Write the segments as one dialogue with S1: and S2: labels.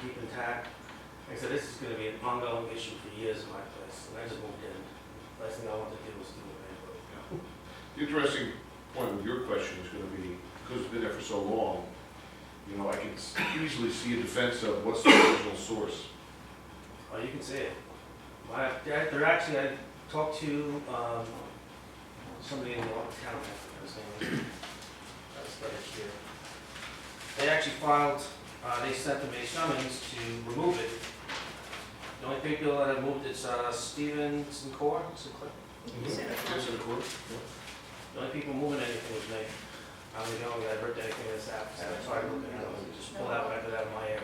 S1: keep intact. Like I said, this is gonna be an ongoing issue for years in my place, and I just moved in. Last thing I want to do is do a neighborhood.
S2: The interesting point with your question is gonna be, because it's been there for so long, you know, I can s- easily see a defense of what's the original source.
S1: Oh, you can see it. My, they're they're actually, I talked to, um, somebody in the town, I forget his name. That's right here. They actually filed, uh, they sent them a summons to remove it. The only people that have moved it's, uh, Steven Sinclair, Sinclair.
S3: Is it a-
S2: Yes, of course.
S1: The only people moving anything was me. I'm the only guy that ripped anything that's happened, so I tried looking at it, and just pulled out, right out of my area.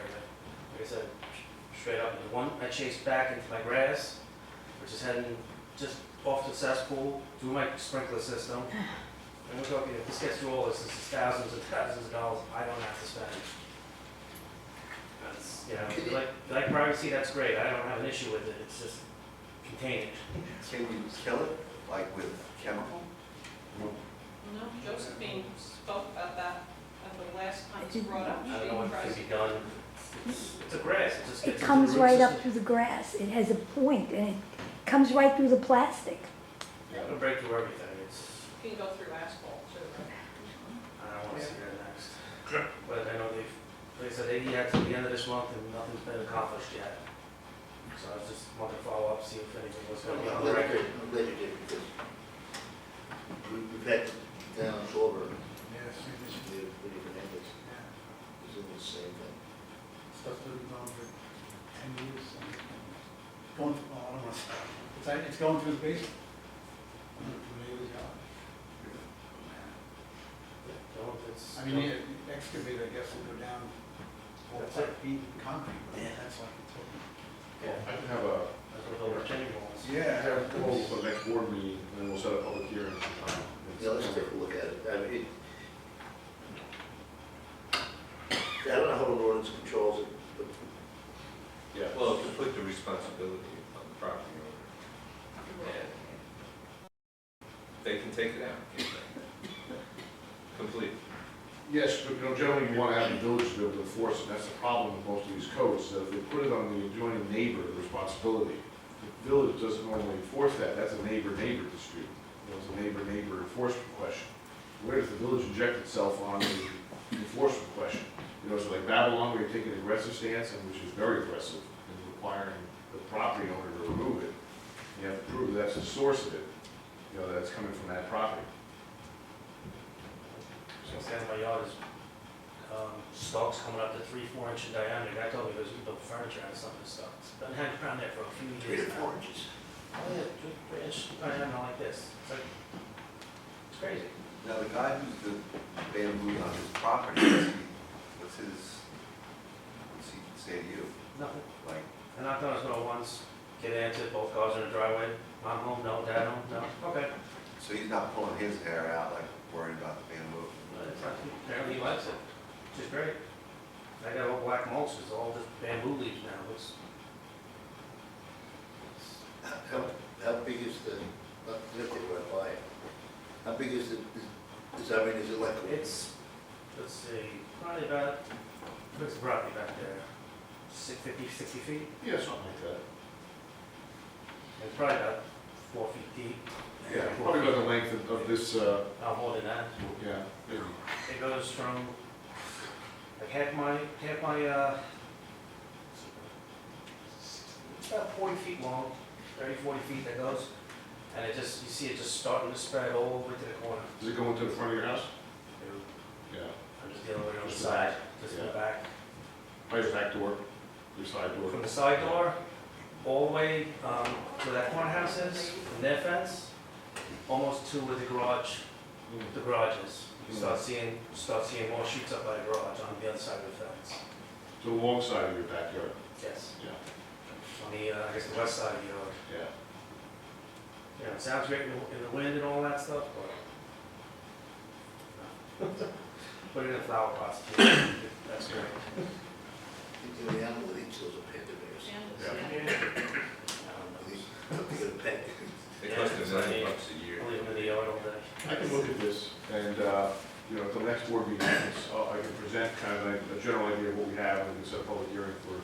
S1: Like I said, sh- straight up, the one I chased back into my grass, which is heading just off the cesspool, through my sprinkler system. And we're talking, if this gets through all this, this is thousands and thousands of dollars I don't have to spend. That's, you know, if you like, if you like privacy, that's great, I don't have an issue with it, it's just contained.
S4: Can you kill it, like with chemical?
S3: No, Josephine spoke about that at the last time it was brought up.
S1: I don't know
S3: She
S1: what
S3: tries-
S1: could be done. It's it's a grass, it just gets.
S5: It
S1: into the
S5: comes
S1: root
S5: right up
S1: system.
S5: through the grass. It has a point and it comes right through the plastic.
S1: It'll break through everything, it's,
S3: Can go through asphalt too, right?
S1: I don't wanna see that next. But I know they've, they said they had till the end of this month and nothing's been accomplished yet. So I just wanted to follow up, see if anything was
S6: I'm
S1: going on
S6: glad
S1: the
S6: you
S1: record.
S6: did, I'm glad you did, because we- we've had towns over,
S7: Yes, it is.
S6: we have pretty tremendous, it's in the same thing.
S7: Stuff that we've gone for ten years. and Going, well, I don't want to, it's, like- it's going through the basement. From neighbor's yard.
S1: Don't, it's.
S7: I mean, the excavator, I guess, will go down four,
S1: That's
S7: five
S1: it.
S7: feet in concrete, but that's like it's open.
S2: Yeah, I can have a,
S1: That's what the retaining walls.
S2: I
S7: Yeah.
S2: have a call for the next board meeting, and then we'll set a public hearing um, sometime.
S6: Yeah, let's take a look at it, I mean, it- I don't know how an ordinance controls it, but
S2: Yeah.
S4: Well, to put the responsibility on the property owner. and They can take it out, can't they? Complete.
S2: Yes, but you know, generally you want to have the village be able to enforce it, that's the problem with most of these codes, so if they put it on the adjoining neighbor, the responsibility, the village doesn't normally enforce that, that's a neighbor-neighbor dispute, You know, it's a neighbor-neighbor enforcement question. Where does the village inject itself on the enforcement question? You know, so like Babylon, where you take an aggressive stance, and which is very aggressive, in requiring the property owner to remove it, you have to prove that's the source of it, you know, that's coming from that property.
S1: Since then, my yard is, um, stalks coming up to three, four inch in diameter. Guy told me there's built furniture out of some of this stuff. It's been hanging around there for a few years
S6: three to
S1: now.
S6: four inches.
S1: Oh, yeah, just branch, I don't know, like this, it's like, it's crazy.
S4: Now, the guy who's the bamboo on his property, what's he- what's his, what's he say to you?
S1: Nothing.
S4: Like,
S1: And I thought it was going once, get into it, both cars in the driveway, mom home, no, dad home, no, okay.
S4: so he's not pulling his hair out, like worrying about the bamboo?
S1: But it's not- Apparently he likes it, which is great. I got all black mulch, it's all just bamboo leaves now, it's.
S6: How, how big is the, not, not that we're buying, how big is the, is, is- I mean, is it like, a-
S1: It's, let's see, probably about, it's probably about there, six, fifty, sixty feet.
S2: Yeah, something like that.
S1: It's probably about four feet deep.
S2: Yeah, probably about the length of- of this, uh,
S1: No, more than that.
S2: yeah, maybe.
S1: It goes from, like half my, half my, uh, it's about forty feet long, 30, 40 feet that goes. And it just, you see it just starting to spread all the way to the corner.
S2: does it go into the front of your house? Yeah.
S1: I'm just dealing with it on the side, just in the back.
S2: By your back door, your side door?
S1: From the side door, all the way, um, where that corner house is, and their fence, almost to where the garage,
S2: Mm.
S1: the garage is. You start seeing, start seeing more shoots up by the garage on the other side of the fence.
S2: To the long side of your backyard?
S1: Yes.
S2: Yeah.
S1: On the, uh, I guess the west side of the yard.
S2: Yeah.
S1: You know, it sounds great in the, in the wind and all that stuff, but. Put it in a flower pot, that's great.
S6: the animal that eats those are panda bears?
S3: And- yeah.
S6: I think- I think they're pet.
S4: It costs a million bucks a
S1: Leave
S4: year.
S1: them in the yard all day.
S2: I can look at this, and, uh, you know, at the next board meeting, I can s- uh, I can present kind of like a general idea of what we have, and we can set a public hearing for